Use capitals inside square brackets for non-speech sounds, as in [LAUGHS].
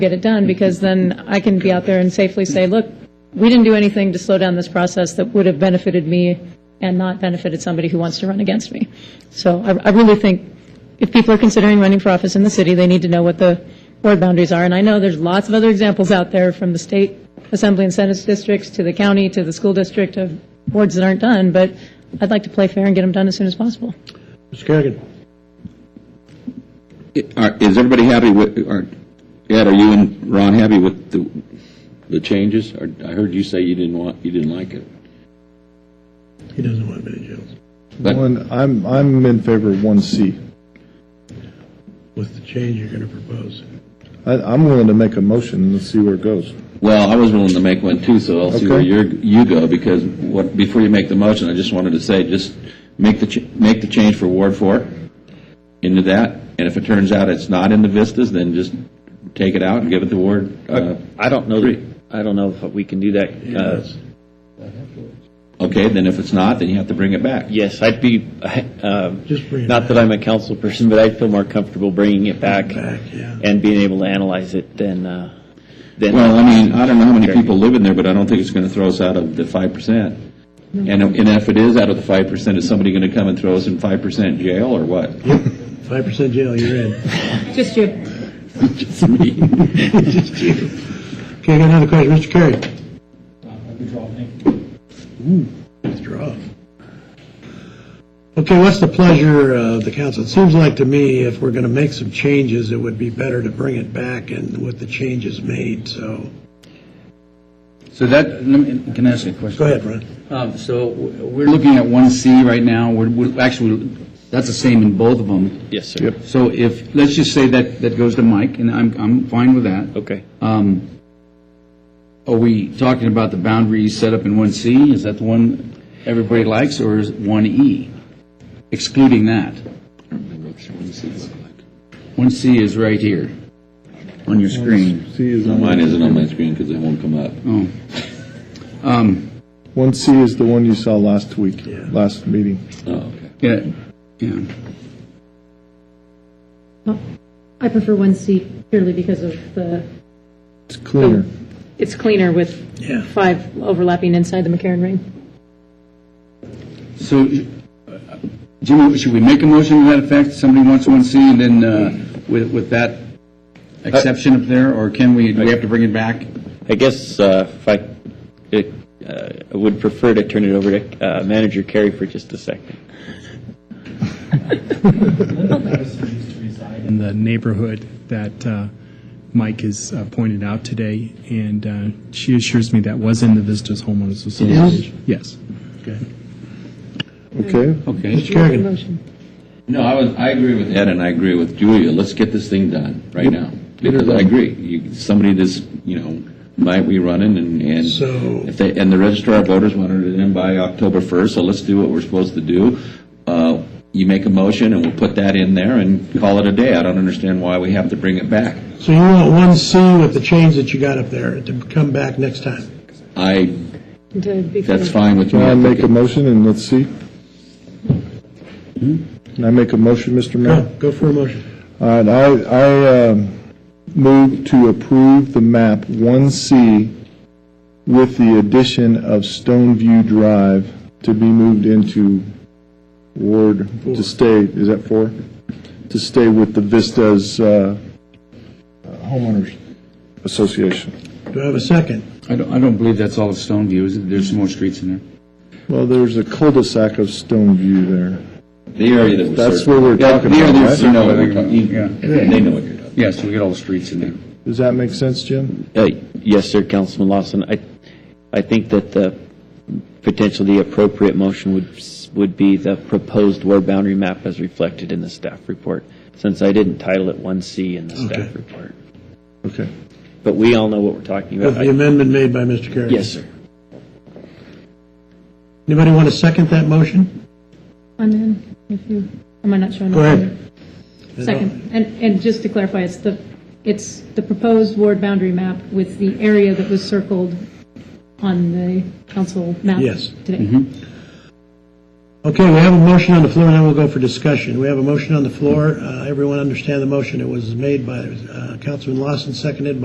get it done, because then I can be out there and safely say, look, we didn't do anything to slow down this process that would have benefited me and not benefited somebody who wants to run against me. So I, I really think if people are considering running for office in the city, they need to know what the board boundaries are. And I know there's lots of other examples out there from the state assembly and senate districts to the county to the school district of boards that aren't done, but I'd like to play fair and get them done as soon as possible. Mr. Kerrigan? Are- Uh, Is everybody happy with, are- Ed, are you and Ron happy with the, the changes? Or- I heard you say you didn't want, you didn't like it. He doesn't want many jails But One, I'm, I'm in favor of one C. with the change you're going to propose. I, I'm willing to make a motion and see where it goes. Well, I was willing to make one too, so I'll see where Okay. you're, you go, because what, before you make the motion, I just wanted to say, just make the, ch- make the change for Ward Four into that, and if it turns out it's not in the vistas, then just take it out and give it to Ward, uh, I don't know, Three. I don't know if we can do that. Uh, Yes. okay, then if it's not, then you have to bring it back. Yes, I'd be, uh, Just bring it not that I'm a council person, but I'd feel more comfortable bringing it back Back, yeah. and being able to analyze it than, uh, than. Well, I mean, I don't know how many people live in there, but I don't think it's going to throw us out of the five percent. And, and if it is out of the five percent, is somebody going to come and throw us in five percent jail or what? Five percent jail, you're in. [LAUGHS] Just you. Just [LAUGHS] me. Okay, I got another question, Mr. Kerry? Ooh, Withdraw. Okay, what's the pleasure of the council? It seems like to me, if we're going to make some changes, it would be better to bring it back and with the changes made, so, So that, let me- can I ask you a question? go ahead, Ron. Um, So w- we're looking at 1C right now, we're, we're- actually, that's the same in both of them. Yes, sir. So if, let's just say that, that goes to Mike, and I'm, I'm fine with that. Okay. Um, Are we talking about the boundaries set up in 1C? Is that the one everybody likes, or is it 1E? Excluding that. 1C is right here, on your screen. C is, Mine isn't on my screen because it won't come up. Oh. Um, one C is the one you saw last week, Yeah. last meeting. Oh, okay. Yeah, yeah. I prefer one C purely because of the, It's cleaner. it's cleaner with Yeah. five overlapping inside the McCarran ring. So, uh, Jimmy, should we make a motion to that effect? Somebody wants one C, and then uh, with with that exception up there, or can we, do we have to bring it back? I guess uh, if I, it, uh, I would prefer to turn it over to uh, Manager Carey for just a second. used to reside in the neighborhood that uh, Mike has uh, pointed out today, and uh, she assures me that was in the Vistas Homeowners Association. Yes. Okay? Okay. Mr. Kerrigan, Motion. No, I was, I agree with Ed and I agree with Julia. Let's get this thing done right now. Because I agree, you, somebody this, you know, might be running and, and So- if they, and the registrar of voters wanted it in by October first, so let's do what we're supposed to do. Uh, you make a motion and we'll put that in there and call it a day. I don't understand why we have to bring it back. so you want one C with the change that you got up there to come back next time? I, To be that's clear. fine with me. Can I make a motion and let's see? Can I make a motion, Mr. Go, Mayor? go for a motion. All right, I, I um, move to approve the map 1C with the addition of Stoneview Drive to be moved into Ward, to stay, is that four? To stay with the Vistas uh, Homeowners Association. Do I have a second? I don't, I don't believe that's all of Stoneview, is it? There's some more streets in there. Well, there's a cul-de-sac of Stoneview there. The area that was. That's certain- what we're Yeah, talking the area about, that's- right? you know what we're talking- Yeah. yeah, They know what you're talking. Yes, we got all the streets in there. Does that make sense, Jim? Uh, Yes, sir, Councilman Lawson. I, I think that the potentially appropriate motion would, s- would be the proposed ward boundary map as reflected in the staff report, since I didn't title it 1C in the Okay. staff report. Okay. But we all know what we're talking With about. the I- amendment made by Mr. Kerrigan? Uh, Yes, sir. Anybody want to second that motion? I'm in, if you, am I not showing up? Go ahead. Second, and, and just to clarify, it's the, it's the proposed ward boundary map with the area that was circled on the council map Yes. Mm-hmm. today. Okay, we have a motion on the floor, and then we'll go for discussion. We have a motion on the floor. Uh, Everyone understand the motion? It was made by uh, Councilman Lawson, seconded by.